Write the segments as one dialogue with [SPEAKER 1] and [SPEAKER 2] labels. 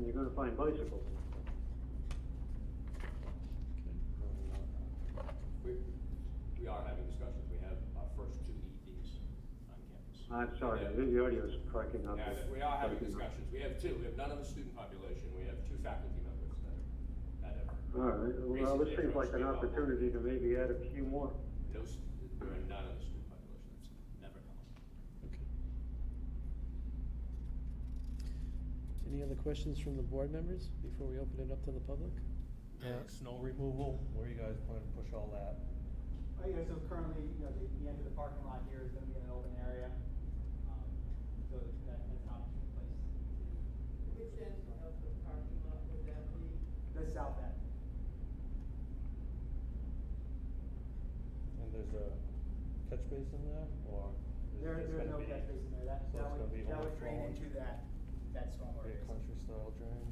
[SPEAKER 1] define bicycle.
[SPEAKER 2] We, we are having discussions, we have our first two EVs on campus.
[SPEAKER 1] I'm sorry,
[SPEAKER 2] Yeah.
[SPEAKER 1] the the audio is cracking up.
[SPEAKER 2] Yeah, we are having discussions, we have two, we have none of the student population, we have two faculty members that, that
[SPEAKER 1] All
[SPEAKER 2] have,
[SPEAKER 1] right, well, this seems like an opportunity to maybe add a few more.
[SPEAKER 2] no, s- there are none of the student population, that's never come up.
[SPEAKER 3] Okay. Any other questions from the board members before we open it up to the public?
[SPEAKER 4] Uh, Snow removal, where you guys plan to push all that?
[SPEAKER 5] Oh, yeah, so currently, you know, the, the end of the parking lot here is gonna be an open area, um, so that, that's not in place.
[SPEAKER 6] Which end of the parking lot would that be?
[SPEAKER 5] The south end,
[SPEAKER 4] And there's a catch basin there, or? is it
[SPEAKER 5] there,
[SPEAKER 4] just
[SPEAKER 5] there's
[SPEAKER 4] gonna
[SPEAKER 5] no
[SPEAKER 4] be-
[SPEAKER 5] catch basin there, that,
[SPEAKER 4] so
[SPEAKER 5] that
[SPEAKER 4] it's gonna be
[SPEAKER 5] would, that would drain
[SPEAKER 4] overflowing?
[SPEAKER 5] into that, that stormwater
[SPEAKER 4] Be a
[SPEAKER 5] basin.
[SPEAKER 4] country style drain?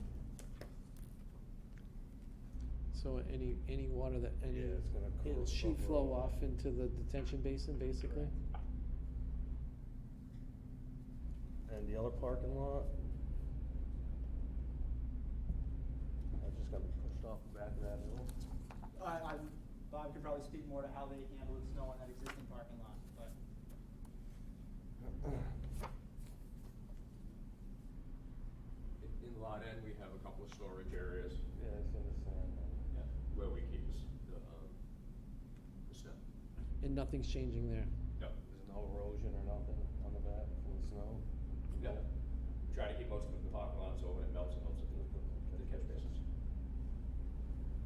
[SPEAKER 3] So any, any water that, any,
[SPEAKER 4] Yeah, it's gonna
[SPEAKER 3] it'll
[SPEAKER 4] curl
[SPEAKER 3] sheet
[SPEAKER 4] over
[SPEAKER 3] flow
[SPEAKER 4] all
[SPEAKER 3] off
[SPEAKER 4] that.
[SPEAKER 3] into the detention basin, basically?
[SPEAKER 4] And the other parking lot? That's just gonna be pushed off the back of that hill?
[SPEAKER 5] I, I, Bob could probably speak more to how they handle the snow on that existing parking lot, but.
[SPEAKER 2] In- In Lot N, we have a couple of storage areas.
[SPEAKER 4] Yeah, it's in the sand.
[SPEAKER 2] Yeah, Where we keep the, s- the, um, the snow.
[SPEAKER 3] And nothing's changing there?
[SPEAKER 2] No,
[SPEAKER 4] There's no erosion or nothing on the back from the snow?
[SPEAKER 2] no, try to keep most of the parking lots open, it melts, it melts into the, the catch basins.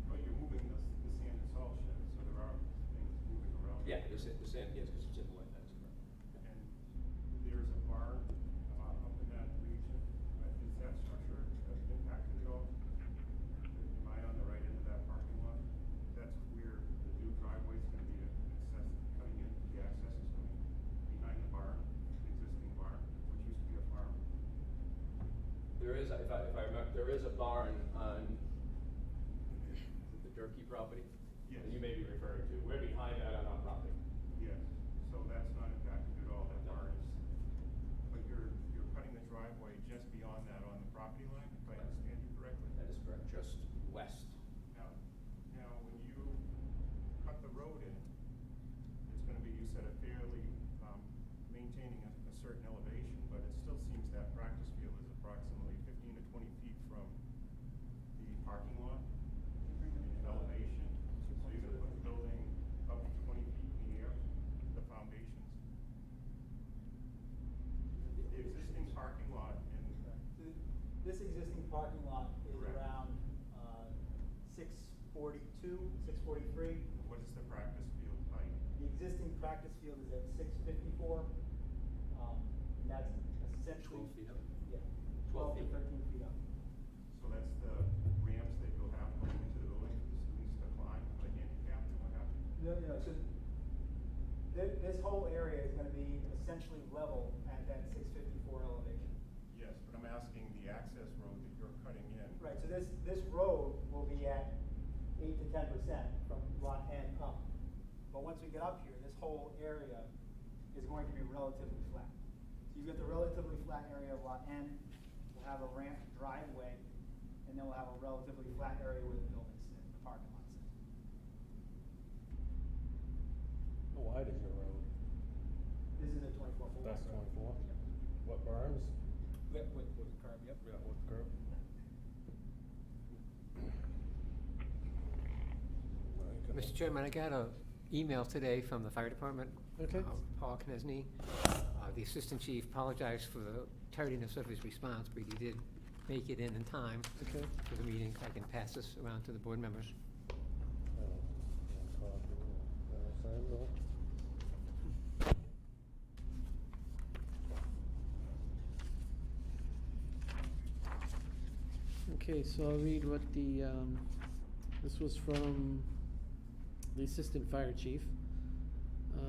[SPEAKER 7] But you're moving the, the sand and salt shed, so there are things moving around.
[SPEAKER 2] Yeah, the sand, the sand, yes, because it's in the wet, that's correct.
[SPEAKER 7] And there's a barn, uh, up in that region, Uh, is that structure uh, impacted at all? Am I on the right end of that parking lot? That's where the new driveway's gonna be access, cutting in, the access is coming behind the barn, the existing barn, which used to be a farm.
[SPEAKER 2] There is, if I, if I remember, there is a barn on the Durkey property?
[SPEAKER 7] Yes.
[SPEAKER 2] that You may be referring to, we're behind that on our property.
[SPEAKER 7] Yes, so that's not impacted at all, that barn is, but you're, you're cutting the driveway just beyond that on the property line, if I understand you correctly?
[SPEAKER 2] That is correct, just west.
[SPEAKER 7] Now, now, when you cut the road in, it's gonna be, you said, a fairly, um, maintaining a, a certain elevation, but it still seems that practice field is approximately fifteen to twenty feet from the parking lot in elevation. So you're gonna put the building up twenty feet in the air, the foundations. The existing parking lot and,
[SPEAKER 5] Th- This existing parking lot is
[SPEAKER 7] Correct.
[SPEAKER 5] around, uh, six forty-two, six forty-three.
[SPEAKER 7] what is the practice field height?
[SPEAKER 5] The existing practice field is at six fifty-four, um, and that's essentially.
[SPEAKER 2] Twelve feet up.
[SPEAKER 5] Yeah.
[SPEAKER 2] Twelve
[SPEAKER 5] to
[SPEAKER 2] feet.
[SPEAKER 5] Thirteen feet up.
[SPEAKER 7] So that's the ramps that you'll have going into the building for the students to climb, like handicap and what have
[SPEAKER 5] No,
[SPEAKER 7] you?
[SPEAKER 5] no, so this, this whole area is gonna be essentially level at that six fifty-four elevation.
[SPEAKER 7] Yes, but I'm asking the access road that you're cutting in.
[SPEAKER 5] Right, so this, this road will be at eight to ten percent from lot N up. But once we get up here, this whole area is going to be relatively flat. So you've got the relatively flat area of lot N, we'll have a ramp driveway, and then we'll have a relatively flat area where the building sits, the parking lot sits.
[SPEAKER 4] How wide is your road?
[SPEAKER 5] This is a twenty-four foot.
[SPEAKER 4] That's twenty-four? What berms?
[SPEAKER 5] With, with, with the curb, yep.
[SPEAKER 4] Yeah, what curve?
[SPEAKER 8] Mr. Chairman, I got a email today from the fire department.
[SPEAKER 3] Okay.
[SPEAKER 8] uh, Paul Knesny, uh, the assistant chief, apologized for the tardiness of his response, but he did make it in in time
[SPEAKER 3] Okay.
[SPEAKER 8] to the meeting. If I can pass this around to the board members.
[SPEAKER 4] Uh, yeah, copy, uh, sign though.
[SPEAKER 3] Okay, so I'll read what the, um, this was from the assistant fire chief. Uh,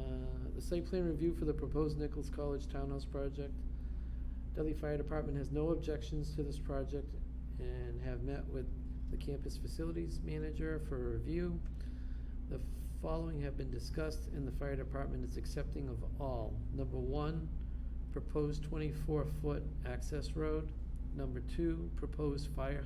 [SPEAKER 3] the site plan review for the proposed Nichols College Townhouse project. Delhi Fire Department has no objections to this project and have met with the campus facilities manager for review. The following have been discussed and the fire department is accepting of all. Number one, proposed twenty-four foot access road. Number two, proposed fire